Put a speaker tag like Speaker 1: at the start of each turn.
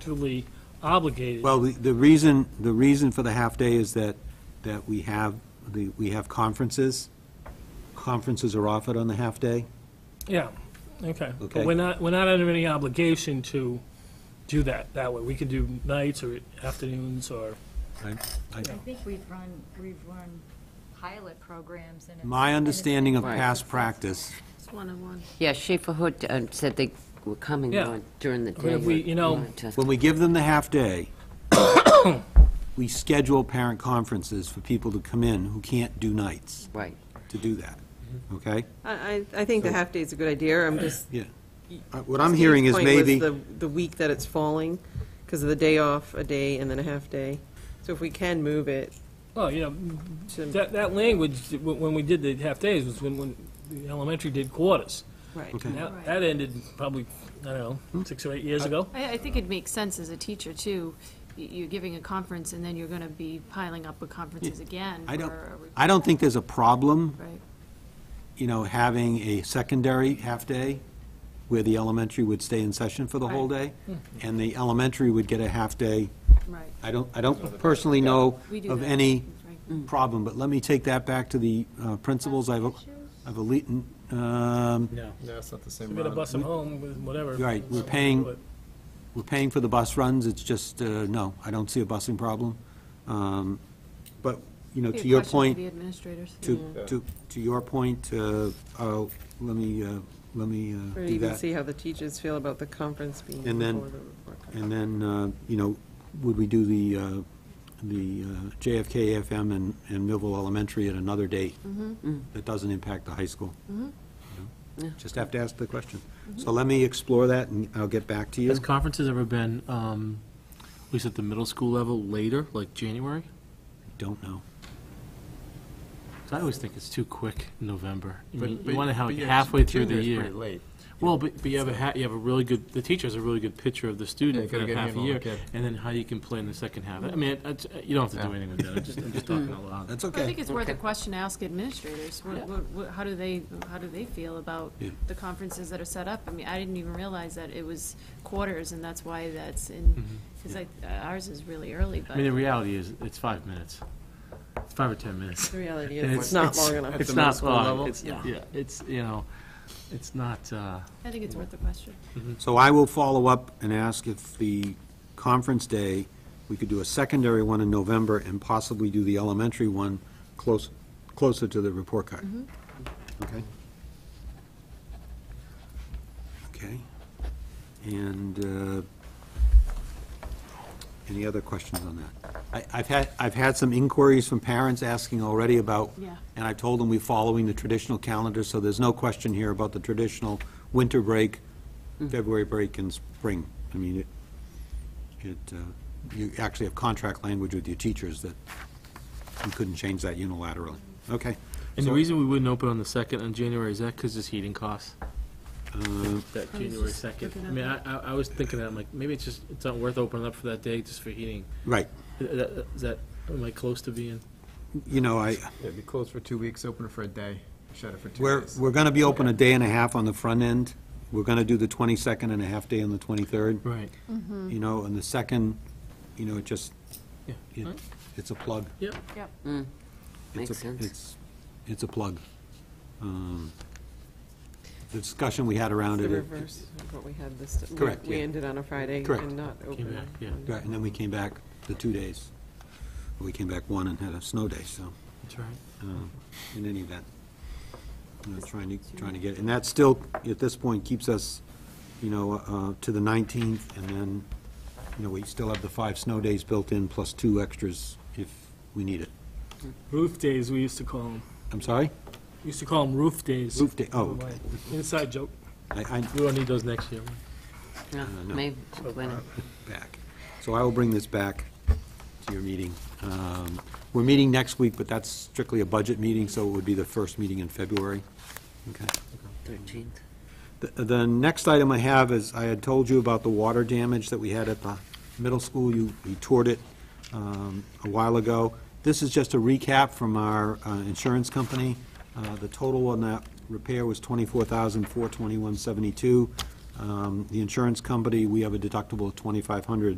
Speaker 1: contractually obligated.
Speaker 2: Well, the- the reason, the reason for the half-day is that, that we have, the we have conferences. Conferences are offered on the half-day.
Speaker 1: Yeah, okay. But
Speaker 2: Okay.
Speaker 1: we're not, we're not under any obligation to do that that way. We can do nights or afternoons or,
Speaker 2: I- I-
Speaker 3: I think we've run, we've run pilot programs and. it's-
Speaker 2: My
Speaker 3: and it's been
Speaker 2: understanding of
Speaker 4: Right.
Speaker 2: past practice,
Speaker 5: It's one-on-one.
Speaker 4: Yeah, Schaefer Hood uh, said they were coming
Speaker 1: Yeah.
Speaker 4: on during the
Speaker 1: I mean,
Speaker 4: day.
Speaker 1: if we- you know-
Speaker 4: wanted to-
Speaker 2: when we give them the half-day, we schedule parent conferences for people to come in who can't do nights
Speaker 4: Right.
Speaker 2: to do that,
Speaker 5: Mm-hmm.
Speaker 2: okay?
Speaker 5: I, I I think the half-day's a good idea, I'm just.
Speaker 2: Yeah. Uh, What I'm
Speaker 5: Steve's
Speaker 2: hearing is
Speaker 5: point was
Speaker 2: maybe,
Speaker 5: The, the week that it's falling, because of the day off, a day, and then a half-day. So if we can move it
Speaker 1: well, you know,
Speaker 5: to,
Speaker 1: that, that language, wh- when we did the half-days, was when, when the elementary did quarters.
Speaker 5: right.
Speaker 2: Okay.
Speaker 1: And that,
Speaker 3: Right.
Speaker 1: that ended probably, I
Speaker 2: Hmm.
Speaker 1: don't know, six or eight years ago.
Speaker 6: I, I think it makes sense as a teacher, too. Y- You're giving a conference, and then you're going to be piling up with conferences again.
Speaker 2: I don't,
Speaker 6: or- or-
Speaker 2: I don't think there's a problem
Speaker 6: Right.
Speaker 2: you know, having a secondary half-day where the elementary would stay in session for the whole day,
Speaker 6: Mm-hmm.
Speaker 2: and the elementary would get a half-day.
Speaker 6: Right.
Speaker 2: I don't, I don't personally know
Speaker 6: We do
Speaker 2: of
Speaker 6: that.
Speaker 2: any
Speaker 6: Right. Mm.
Speaker 2: problem, but let me take that back to the uh, principals. I've, I've, elite- um,
Speaker 7: No, it's not the same
Speaker 1: We're gonna bus them home with whatever.
Speaker 2: Right, we're
Speaker 1: That's how we
Speaker 2: paying-
Speaker 1: do it.
Speaker 2: we're paying for the bus runs, it's just, uh, no, I don't see a busing problem. Um, But, you know,
Speaker 6: Be a
Speaker 2: to your
Speaker 6: question for
Speaker 2: point,
Speaker 6: the administrators.
Speaker 2: to, to, to your point, uh, I'll- let me, uh, let me uh,
Speaker 5: Or
Speaker 2: do
Speaker 5: even
Speaker 2: that.
Speaker 5: see how the teachers feel about the conference being
Speaker 2: And then-
Speaker 5: before the report card.
Speaker 2: And then, uh, you know, would we do the, uh, the uh, JFK FM and, and Millville Elementary at another date?
Speaker 6: Mm-hmm. Mm.
Speaker 2: That doesn't impact the high school? You know? Just have to ask the question.
Speaker 6: Mm-hmm.
Speaker 2: So let me explore that, and I'll get back to you.
Speaker 8: Has conferences ever been, um, at least at the middle school level, later, like January?
Speaker 2: Don't know.
Speaker 8: 'Cause I always think it's too quick in November. I
Speaker 7: But-
Speaker 8: mean,
Speaker 7: but-
Speaker 8: You want to have
Speaker 7: but
Speaker 8: it
Speaker 7: yeah,
Speaker 8: halfway through the
Speaker 7: junior's
Speaker 8: year.
Speaker 7: pretty late.
Speaker 8: Well, but, but you have a, ha- you have a really good, the teacher has a really good picture of the
Speaker 7: Yeah,
Speaker 8: student for
Speaker 7: gotta
Speaker 8: that
Speaker 7: get
Speaker 8: half a
Speaker 7: him on,
Speaker 8: year,
Speaker 7: okay.
Speaker 8: and then how you can play in the second half. I mean, it's- you don't have to do
Speaker 7: Yeah.
Speaker 8: anything with that, I'm just, I'm just talking out loud.
Speaker 2: That's
Speaker 6: I
Speaker 2: okay.
Speaker 6: think it's worth a question to ask administrators. What-
Speaker 8: Yeah.
Speaker 6: what- what- How do they, how do they feel about
Speaker 2: Yeah.
Speaker 6: the conferences that are set up? I mean, I didn't even realize that it was quarters, and that's why that's
Speaker 2: Mm-hmm.
Speaker 6: in, because ours is really early, but.
Speaker 8: I mean, the reality is, it's five minutes. It's five or 10 minutes.
Speaker 5: The reality
Speaker 8: And
Speaker 5: is, it's not long enough.
Speaker 8: It's
Speaker 7: the middle
Speaker 8: not
Speaker 7: school level?
Speaker 8: long, it's,
Speaker 5: Yeah.
Speaker 8: yeah, it's, you know, it's not, uh,
Speaker 6: I think it's worth the question.
Speaker 2: So I will follow up and ask if the conference day, we could do a secondary one in November and possibly do the elementary one close, closer to the report card. Okay? Okay. And uh, any other questions on that? I- I've had, I've had some inquiries from parents asking already about.
Speaker 6: Yeah.
Speaker 2: And I told them we're following the traditional calendar, so there's no question here about the traditional winter break, February break and spring. I mean, it, it, uh, you actually have contract language with your teachers that you couldn't change that unilaterally. Okay.
Speaker 8: And the
Speaker 2: So-
Speaker 8: reason we wouldn't open on the second on January is that because it's heating costs? That
Speaker 6: I was
Speaker 8: January
Speaker 6: just
Speaker 8: second.
Speaker 6: Oh, looking
Speaker 8: I
Speaker 6: at
Speaker 8: mean, I,
Speaker 6: that.
Speaker 8: I, I was thinking that, I'm like, maybe it's just, it's not worth opening up for that day just for heating.
Speaker 2: Right.
Speaker 8: Is that- is that, am I close to being?
Speaker 2: You know, I,
Speaker 7: Yeah, be closed for two weeks, open it for a day, shut it for two
Speaker 2: We're,
Speaker 7: days.
Speaker 2: we're going to be open a day and a half on the front end. We're going to do the 22nd and a half day on the 23rd.
Speaker 8: Right.
Speaker 2: You know, and the second, you know, it just,
Speaker 8: Yeah.
Speaker 2: it- it's a plug.
Speaker 8: Yep.
Speaker 6: Yep.
Speaker 2: It's
Speaker 4: Mm. Makes
Speaker 2: a-
Speaker 4: sense.
Speaker 2: It's, it's a plug. Um, The discussion we had around
Speaker 5: The
Speaker 2: it. it-
Speaker 5: reverse of what we had this, we-
Speaker 2: Correct,
Speaker 5: we
Speaker 2: yeah.
Speaker 5: ended on a Friday
Speaker 2: Correct.
Speaker 5: and not
Speaker 8: Came
Speaker 5: open.
Speaker 8: back, yeah.
Speaker 5: on-
Speaker 2: Right, and then we came back the two days. We came back one and had a snow day, so.
Speaker 8: That's right.
Speaker 2: um, in any event. You know, Trying to, trying to get, and that still, at this point, keeps us, you know, uh, to the 19th, and then, you know, we still have the five snow days built in, plus two extras if we need it.
Speaker 1: Roof days, we used to call them.
Speaker 2: I'm sorry?
Speaker 1: We used to call them roof days.
Speaker 2: Roof day, oh, okay.
Speaker 1: Inside joke.
Speaker 2: I, I,
Speaker 8: We will need those next year.
Speaker 4: Yeah,
Speaker 2: no.
Speaker 4: Maybe, when-
Speaker 2: back. So I will bring this back to your meeting. Um, We're meeting next week, but that's strictly a budget meeting, so it would be the first meeting in February. Okay?
Speaker 4: 13th.
Speaker 2: The- The next item I have is, I had told you about the water damage that we had at the middle school. You you toured it um, a while ago. This is just a recap from our uh, insurance company. Uh, The total on that repair was $24,421.72. Um, The insurance company, we have a deductible of 2,500